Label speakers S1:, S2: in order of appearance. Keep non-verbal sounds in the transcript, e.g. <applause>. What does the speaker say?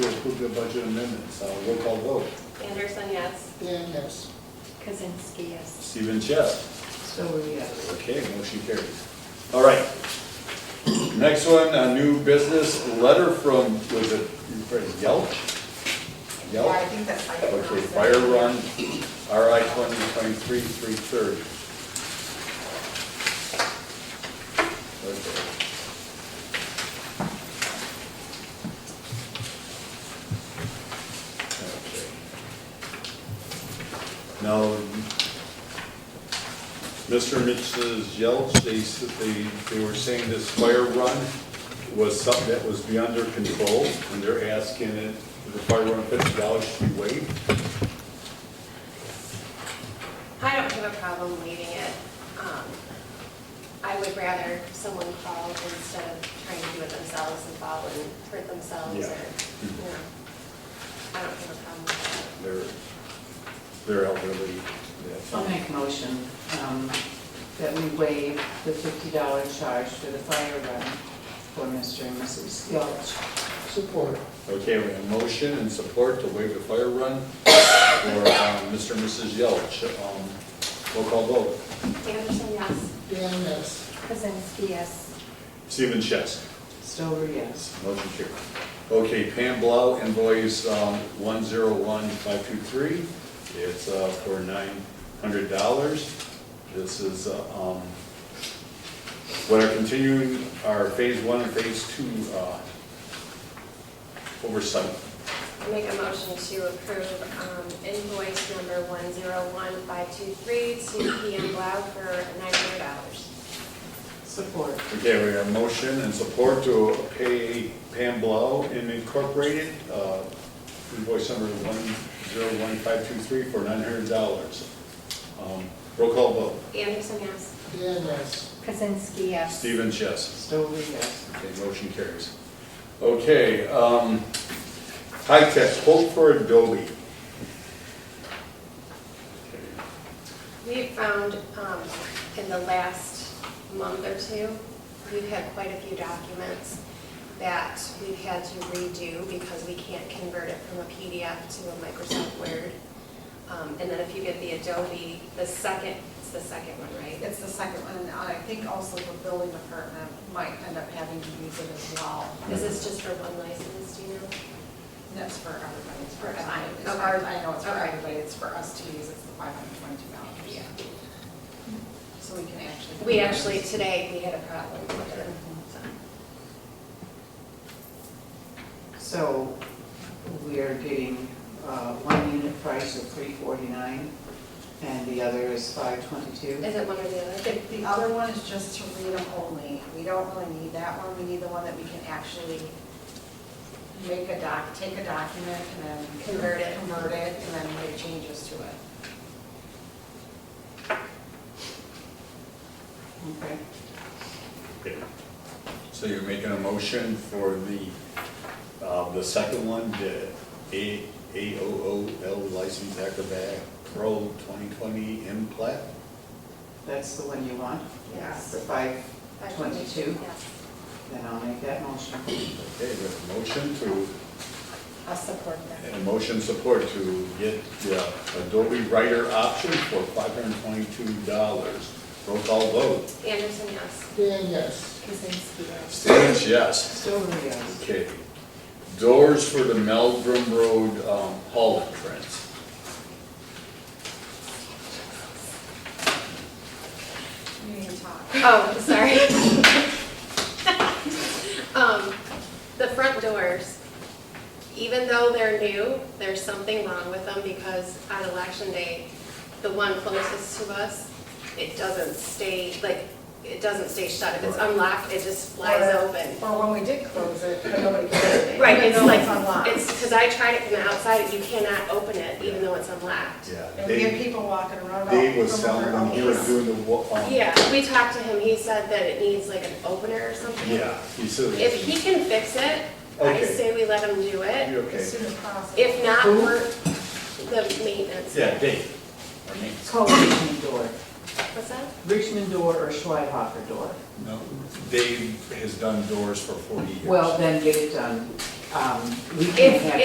S1: to a budget amendment, so roll call vote.
S2: Anderson, yes.
S1: Dan, yes.
S2: Kazinsky, yes.
S1: Stephen Chess.
S3: So are we, yes.
S1: Okay, motion carries. All right. Next one, a new business letter from, was it Yelch?
S4: Yeah, I
S1: Yelch?
S4: think that's how you
S1: Okay,
S4: pronounce it.
S1: Fire Run, RI twenty twenty-three, three thirty. Now, Mr. and Mrs. Yelch, they, s- they, they were saying this fire run was something that was beyond their control, and they're asking it, the fire run fifty dollars should be waived.
S2: I don't have a problem waiving it. Um, I would rather someone call instead of trying to do it themselves and fall and hurt themselves or, you
S1: Yeah.
S2: know. I don't have a problem with
S1: They're, they're elderly. that's-
S3: I'll make a motion um, that we waive the $50 charge for the fire run for Mr. and Mrs. Yelch.
S5: Support.
S1: Okay, we have motion and support to waive the fire run for um, Mr. and Mrs. Yelch. Um, Roll call vote.
S2: it. Anderson, yes.
S5: Dan, yes.
S2: Kazinsky, yes.
S1: Stephen Chess.
S3: Stover, yes.
S1: Motion carried. Okay, Pam Blau invoice um, 101523. It's uh, for $900. This is uh, um, what are continuing our phase one and phase two uh, oversight.
S2: I make a motion to approve um, invoice number 101523 to PM Blau for $900.
S3: Support.
S1: Okay, we have motion and support to pay Pam Blau and Incorporated, uh, invoice number 101523 for $900. Um, Roll call vote.
S2: Anderson, yes.
S5: Dan, yes.
S2: Kazinsky, yes.
S1: Stephen Chess.
S3: Stover, yes.
S1: Okay, motion carries. Okay, um, high tech, quote for Adobe.
S2: We've found um, in the last month or two, we've had quite a few documents that we've had to redo because we can't convert it from a PDF to a Microsoft Word. Um, And then if you get the Adobe, the second, it's the second one, right?
S4: It's the second one, and I think also the building department might end up having to use it as well.
S2: Is this just for one license, do you know?
S4: And That's for everybody, it's for
S2: Okay.
S4: everybody. It's
S2: Okay.
S4: ours, I know it's for
S2: Okay.
S4: everybody, it's for us to use, it's the five hundred twenty-two dollars. So we can actually.
S2: We actually, today, we had a problem with it. so.
S3: So we are getting uh, one unit price of 349 and the other is 522.
S2: Is it one or the other?
S4: The the other one is just to read them only. We don't really need that one. We need the one that we can actually make a doc, take a document and then.
S2: Convert it.
S4: Convert it and then make changes to it.
S3: Okay.
S1: Okay. So you're making a motion for the, uh, the second one, the A, AOOL license Acrobat Pro 2020 M plat?
S3: That's the one you want?
S2: Yes.
S3: The 522?
S2: Yes.
S3: Then I'll make that motion.
S1: Okay, we have a motion to,
S4: I'll support
S1: and a motion support to get the uh, Adobe Writer option for $522. Roll call vote.
S2: Anderson, yes.
S5: Dan, yes.
S2: Kazinsky, yes.
S1: Stevens, yes.
S3: Stover, yes.
S1: Okay. Doors for the Meldrum Road um, hall entrance.
S4: You need to talk.
S2: Oh, sorry. <laughs> Um, the front doors, even though they're new, there's something wrong with them because on election day, the one closest to us, it doesn't stay, like, it doesn't stay shut. If it's
S1: Right.
S2: unlocked, it just flies open.
S4: Or when we did close it, nobody cared.
S2: Right, it's
S4: No
S2: like,
S4: one's unlocked.
S2: it's, because I tried it from the outside, you cannot open it even though it's unlocked.
S1: Yeah.
S4: And we had
S1: Dave
S4: people walking around. all
S1: Dave was
S4: over
S1: selling
S4: our
S1: them, he was
S4: place.
S1: doing the, wa- um,
S2: Yeah, we talked to him, he said that it needs like an opener or something.
S1: yeah, he said.
S2: If he can fix it, I
S1: Okay.
S2: say we let him do it.
S1: You're
S4: As
S1: okay.
S4: soon as possible.
S2: If not,
S3: Who?
S2: we're, the maintenance.
S1: Yeah, Dave. Or Nate.
S3: Call Richmond door.
S2: What's that?
S3: Richmond door or Schweidhofer door?
S1: No, Dave has done doors for forty years.
S3: Well, then get it done. Um, We
S2: If-
S3: can't have